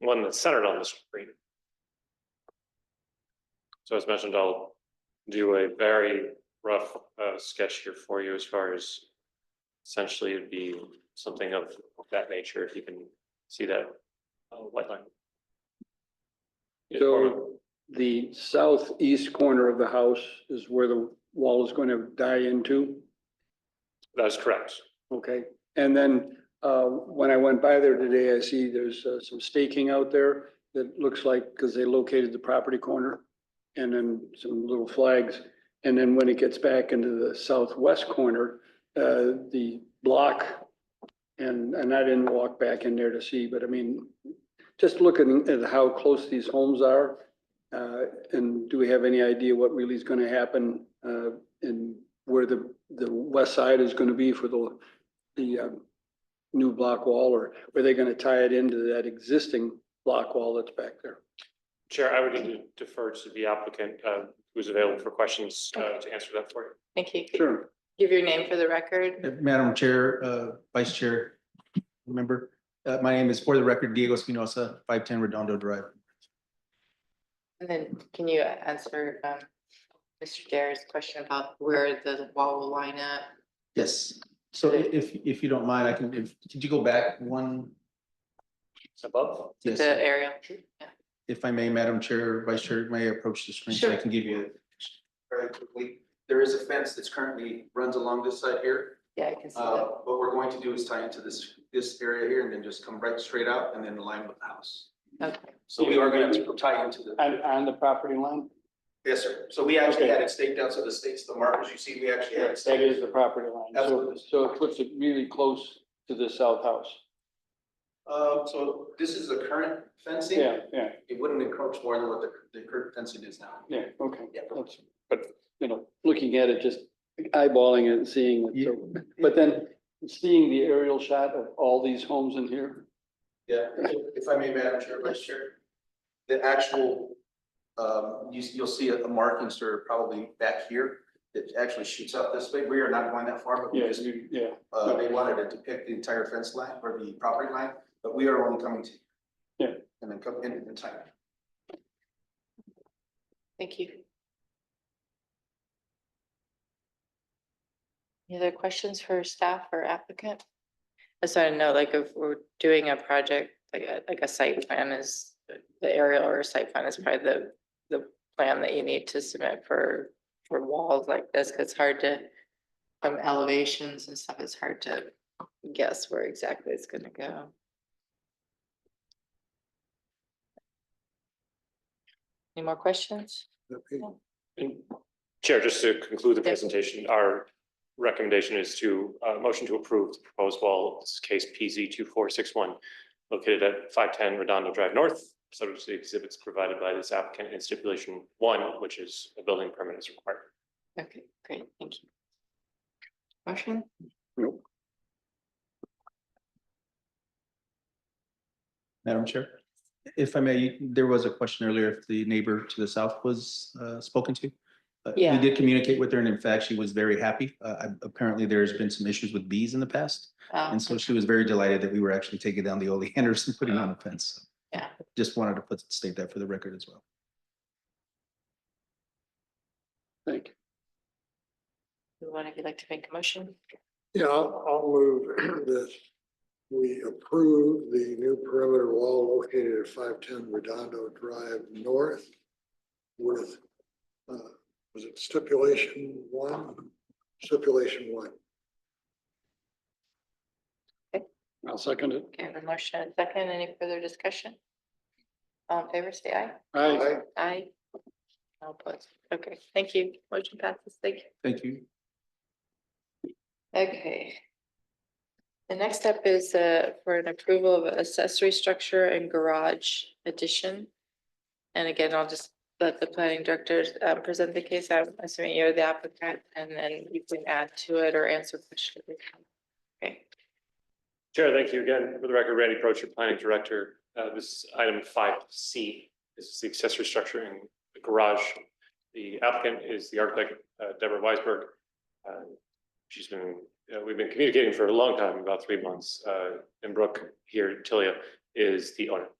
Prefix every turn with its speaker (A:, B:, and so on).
A: one that's centered on the screen. So as mentioned, I'll do a very rough uh sketch here for you as far as. Essentially, it'd be something of that nature, if you can see that uh white line.
B: So the southeast corner of the house is where the wall is going to die into.
A: That's correct.
B: Okay, and then uh, when I went by there today, I see there's uh, some staking out there that looks like, because they located the property corner and then some little flags. And then when it gets back into the southwest corner, uh, the block, and, and I didn't walk back in there to see, but I mean, just looking at how close these homes are, uh, and do we have any idea what really is going to happen uh, and where the, the west side is going to be for the the um, new block wall, or are they gonna tie it into that existing block wall that's back there?
A: Chair, I would need to defer to the applicant uh who's available for questions uh to answer that for you.
C: Thank you. Could you
B: Sure.
C: Give your name for the record.
D: Uh, Madam Chair, uh, Vice Chair, remember, uh, my name is for the record Diego Espinosa, five ten Redondo Drive.
C: And then can you answer um Mr. Dare's question about where the wall will line up?
D: Yes, so i- if, if you don't mind, I can, if, could you go back one?
A: Above?
D: Yes,
C: The aerial? Yeah.
D: if I may, Madam Chair, Vice Chair, may I approach the screen so I
C: Sure.
D: can give you? a- Very quickly, there is a fence that's currently runs along this side here.
C: Yeah, I can see
D: Uh,
C: that.
D: what we're going to do is tie into this, this area here and then just come right straight out and then align with the house.
C: Okay.
D: So we are going to tie into the.
B: On, on the property line?
D: Yes, sir. So we actually had it staked out, so the stakes, the markers you see, we actually had it
B: That
D: staked.
B: is the property line. So-
D: Absolutely.
B: So it puts it really close to the south house.
D: Uh, so this is the current fencing.
B: Yeah, yeah,
D: It wouldn't encroach more than what the, the current fencing is now.
B: yeah, okay.
D: Yeah.
B: That's- But, you know, looking at it, just eyeballing it and seeing it, so, but then seeing the aerial shot of all these homes in here.
D: Yeah, if I may, Madam Chair, Vice Chair, the actual, um, you, you'll see a a marking, sir, probably back here. It actually shoots out this way. We are not going that far, but we
B: Yeah,
D: just,
B: you- yeah,
D: uh, they wanted to depict the entire fence line or the property line, but we are only coming to.
B: Yeah.
D: And then come in the time.
C: Thank you. Any other questions for staff or applicant? I just want to know, like, if we're doing a project, like a, like a site plan is, the aerial or site plan is probably the, the plan that you need to submit for, for walls like this, because it's hard to, from elevations and stuff, it's hard to guess where exactly it's gonna go. Any more questions?
A: And Chair, just to conclude the
C: Yes.
A: presentation, our recommendation is to, uh, motion to approve the proposed wall, this is case PZ two four six one, located at five ten Redondo Drive North, subject to the exhibits provided by this applicant in stipulation one, which is a building permit is required.
C: Okay, great, thank you. Motion?
B: Nope.
D: Madam Chair, if I may, there was a question earlier if the neighbor to the south was uh, spoken to. Uh, We
C: Yeah.
D: did communicate with her and in fact, she was very happy. Uh, I- Apparently, there's been some issues with bees in the past.
C: Um,
D: And so she was very delighted that we were actually taking down the oleanders and putting on a fence.
C: Yeah.
D: Just wanted to put, state that for the record as well.
B: thank you.
C: One of you like to make a motion?
E: Yeah, I'll, I'll move that we approve the new perimeter wall located at five ten Redondo Drive North with, uh, was it stipulation one? Stipulation one.
B: I'll second it.
C: Okay, I have a motion and a second. Any further discussion? All in favor, say aye.
B: Aye.
C: Aye. All opposed. Okay, thank you. Motion passes. Thank you.
D: Thank you.
C: Okay. The next step is uh for an approval of accessory structure and garage addition. And again, I'll just let the planning director uh, present the case. I'm assuming you're the applicant and then you can add to it or answer questions. Okay,
A: Chair, thank you again. For the record, Randy Proch, your planning director. Uh, this is item five C. This is the accessory structure in the garage. The applicant is the architect uh, Deborah Weisberg. Uh, She's been, uh, we've been communicating for a long time, about three months. Uh, and Brooke here, Tilia, is the owner.